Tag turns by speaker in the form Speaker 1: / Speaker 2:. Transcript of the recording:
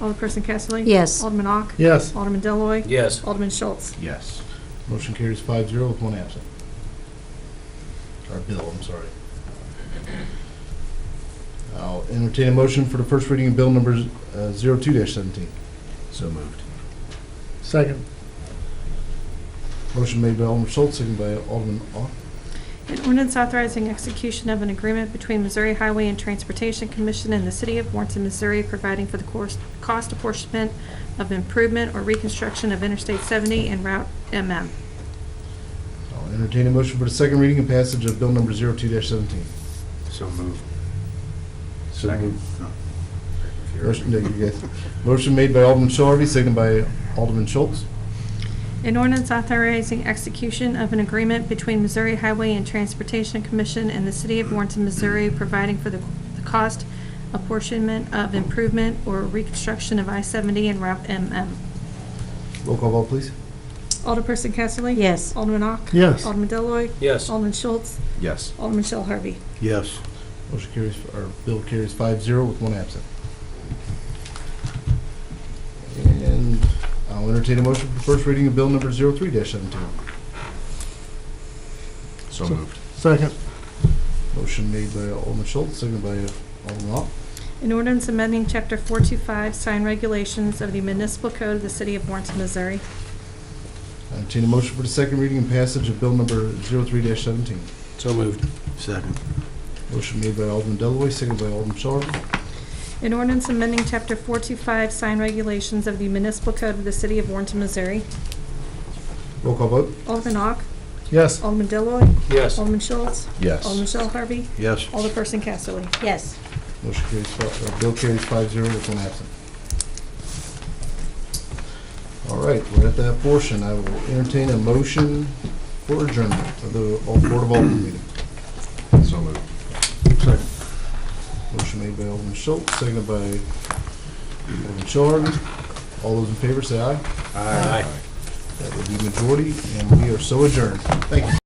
Speaker 1: Alderperson Casterly?
Speaker 2: Yes.
Speaker 1: Alderman Ock?
Speaker 3: Yes.
Speaker 1: Alderman Deloy,
Speaker 4: Yes.
Speaker 1: Alderman Schultz?
Speaker 3: Yes. Motion carries five zero with one absent. Or bill, I'm sorry. I'll entertain a motion for the first reading of bill number uh, zero two dash seventeen.
Speaker 4: So moved.
Speaker 5: Second.
Speaker 3: Motion made by Alderman Schultz, seconded by Alderman Ock.
Speaker 1: An ordinance authorizing execution of an agreement between Missouri Highway and Transportation Commission and the City of Warrenton, Missouri, providing for the course- cost apportionment of improvement or reconstruction of Interstate 70 and Route MM.
Speaker 3: I'll entertain a motion for the second reading and passage of bill number zero two dash seventeen.
Speaker 4: So moved. Oh.
Speaker 3: Second.
Speaker 4: No.
Speaker 3: Motion, no, you guys. Motion made by Alderman Shell Harvey, seconded by Alderman Schultz.
Speaker 1: An ordinance authorizing execution of an agreement between Missouri Highway and Transportation Commission and the City of Warrenton, Missouri, providing for the the cost apportionment of improvement or reconstruction of I-70 and Route MM.
Speaker 3: Roll call vote, please.
Speaker 1: Alderperson Casterly?
Speaker 2: Yes.
Speaker 1: Alderman Ock?
Speaker 5: Yes.
Speaker 1: Alderman Deloy,
Speaker 4: Yes.
Speaker 1: Alderman Schultz?
Speaker 4: Yes.
Speaker 1: Alderman Shell Harvey.
Speaker 4: Yes.
Speaker 3: Motion carries, or bill carries five zero with one absent. And I'll entertain a motion for first reading of bill number zero three dash seventeen.
Speaker 4: So moved.
Speaker 5: Second.
Speaker 3: Motion made by Alderman Schultz, seconded by Alderman Ock.
Speaker 1: An ordinance amending Chapter 425 sign regulations of the municipal code of the city of Warrenton, Missouri.
Speaker 3: I Entertain a motion for the second reading and passage of bill number zero three dash seventeen.
Speaker 4: So moved. Second.
Speaker 3: Motion made by Alderman Delloy, seconded by Alderman Shaw.
Speaker 1: An ordinance amending Chapter 425 sign regulations of the municipal code of the city of Warrenton, Missouri.
Speaker 3: Roll call vote.
Speaker 1: Alderman Ock,
Speaker 5: Yes.
Speaker 1: Alderman Deloy,
Speaker 4: Yes.
Speaker 1: Alderman Schultz, Alderman
Speaker 4: Yes.
Speaker 1: Shell Harvey,
Speaker 4: Yes.
Speaker 1: Alderperson Casterly.
Speaker 2: Yes.
Speaker 3: Motion carries, fi- uh, bill carries five zero with one absent. All right, we're at that portion. I will entertain a motion for adjournment of the Al- Board of Alderman meeting.
Speaker 4: So moved.
Speaker 3: Motion made by Alderman Schultz, seconded by Alderman Shorn. All those in favor, say aye.
Speaker 4: Aye.
Speaker 3: That would be majority, and we are so adjourned. Thank you.